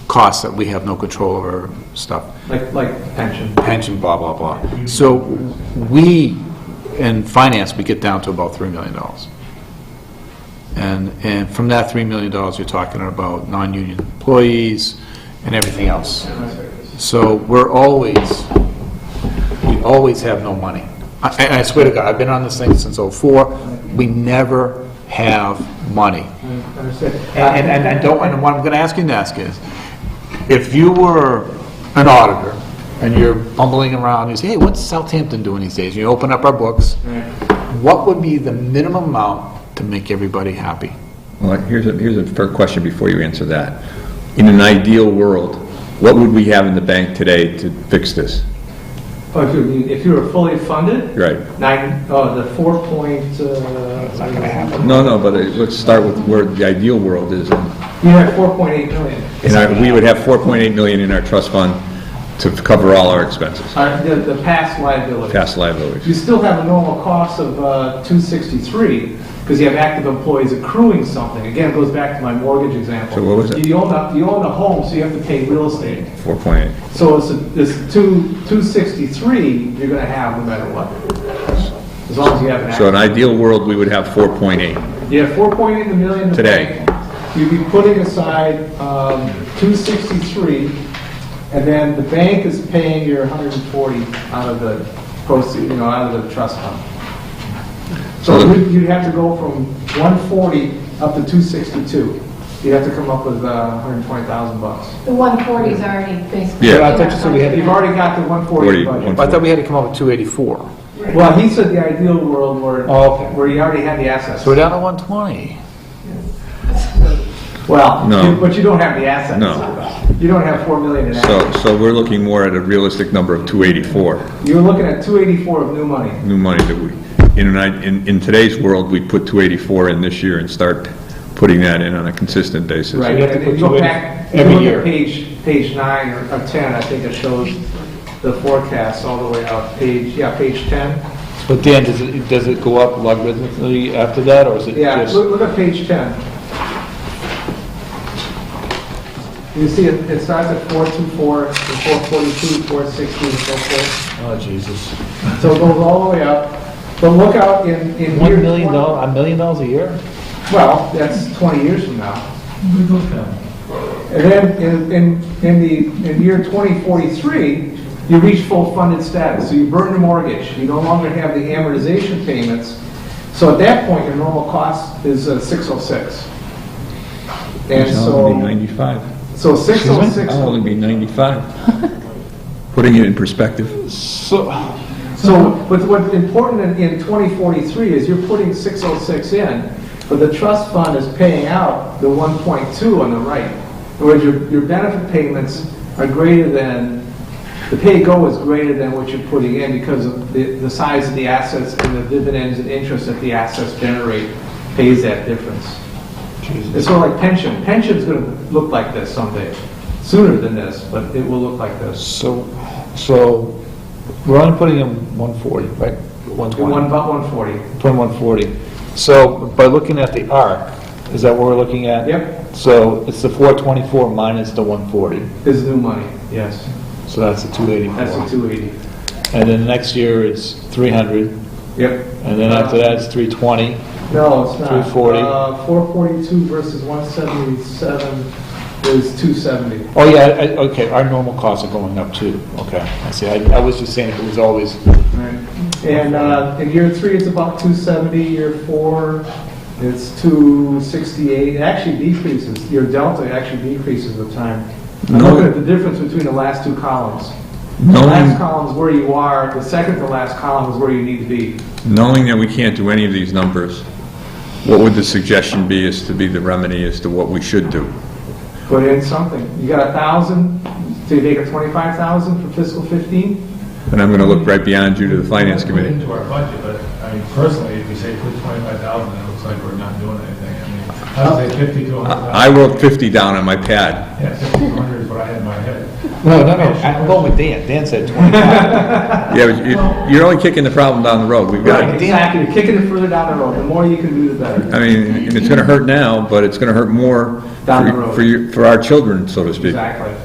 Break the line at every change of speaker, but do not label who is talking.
costs that we have no control over, stuff,
Like, like pension.
pension, blah, blah, blah. So we, in finance, we get down to about $3 million. And, and from that $3 million, you're talking about non-union employees and everything else. So we're always, we always have no money. I, I- I swear to God, I've been on this thing since '04, we never have money.
Understood.
And, and, and don't, and what I'm gonna ask you to ask is, if you were an auditor, and you're bumbling around, you say, hey, what's Southampton doing these days? You open up our books, what would be the minimum amount to make everybody happy?
Well, here's a, here's a fair question before you answer that. In an ideal world, what would we have in the bank today to fix this?
Oh, if you, if you were fully funded?
Right.
Nine, oh, the four point, uh. It's not gonna happen.
No, no, but it- let's start with where the ideal world is.
You have four point eight million.
And I- we would have 4.8 million in our trust fund to cover all our expenses,
Uh, the, the past liability.
past liabilities.
You still have a normal cost of uh, 263, because you have active employees accruing something. Again, it goes back to my mortgage example.
So what was it?
You own a, you own a home, so you have to pay real estate.
4.8.
So it's, a- it's two 263 you're going to have no matter what, as long as you have an
So
active.
in an ideal world, we would have 4.8.
You have 4.8 in the million. in the
Today.
bank. You'd be putting aside um, 263, and then the bank is paying your 140 out of the proceed, you know, out of the trust fund. So
So-
you'd you'd have to go from 140 up to 262. You'd have to come up with uh, 120,000 bucks.
The 140 is already basically.
Yeah.
in
But I thought you said we had-
our
You've
budget.
already got the 140
Forty,
budget.
one-
I thought we had to come up with 284.
Well, he said the ideal world where,
Oh, okay.
where you already had the assets.
So we're down to 120.
Well,
No.
you- but you don't have the assets.
No.
You don't have 4 million in assets.
So, so we're looking more at a realistic number of 284,
You're looking at 284 of new money.
new money that we, in, an i- in, in today's world, we put 284 in this year and start putting that in on a consistent basis.
Right,
you have to
and if
put
you go
two in
back, if you
every
look
year.
at page, page nine or or 10, I think it shows the forecast all the way up, page, yeah, page 10.
But Dan, does it, does it go up logarithmically after that, or is it
Yeah,
just?
look, look at page 10. You see, it it starts at 424, and 442, 460, and so forth.
Oh, Jesus.
So it goes all the way up, but look out in, in year 20.
One million dollars, a million dollars a year?
Well, that's 20 years from now. And then in, in, in the, in year 2043, you reach full funded status, so you burn the mortgage, you no longer have the amortization payments. So at that point, your normal cost is uh, 606. And
I'll be
so,
95.
so 606,
I'll only be 95. Putting it in perspective.
So,
so, but what's important in, in 2043 is you're putting 606 in, but the trust fund is paying out the 1.2 on the right. In other words, your, your benefit payments are greater than, the pay-go is greater than what you're putting in because of the, the size of the assets and the dividends and interest that the assets generate pays that difference. It's sort of like pension. Pension's gonna look like this someday, sooner than this, but it will look like this.
so, so, we're only putting in one forty, right? One twenty.
One, about 140.
Putting one forty. So, by looking at the arc, is that what we're looking at?
Yep.
So, it's the four twenty-four minus the one forty,
Is new money, yes.
so that's the two
That's the
eighty-four.
280.
And then next year is three hundred,
Yep.
and then after that it's three twenty.
No, it's not.
340.
Uh, 442 versus 177 is 270.
Oh, yeah, I- I- okay, our normal costs are going up too, okay. I see, I I was just saying if it was always
And uh, in year three, it's about 270, year four, it's 268. It actually decreases, your delta actually decreases with time. I'm
No.
looking at the difference between the last two columns. The last
Knowing,
column is where you are, the second to last column is where you need to be.
knowing that we can't do any of these numbers, what would the suggestion be as to be the remedy as to what we should do?
put in something. You got a thousand, so you make it twenty-five thousand for fiscal fifteen?
And I'm going to look right beyond you to the finance committee.
Into our budget, but I mean, personally, if you say put twenty-five thousand, it looks like we're not doing anything. I mean, I would say fifty to a hundred
I I
thousand.
wrote 50 down on my pad.
Yeah, fifty to a hundred is what I had in my head.
No, no, no, I'm going with Dan, Dan said 25.
Yeah, but you- you're only kicking the problem down the road. We've got,
Exactly, you're kicking it further down the road, the more you can do, the better.
I mean, and it's going to hurt now, but it's going to hurt more
down the
for,
road.
for your- for our children, so to speak.
Exactly.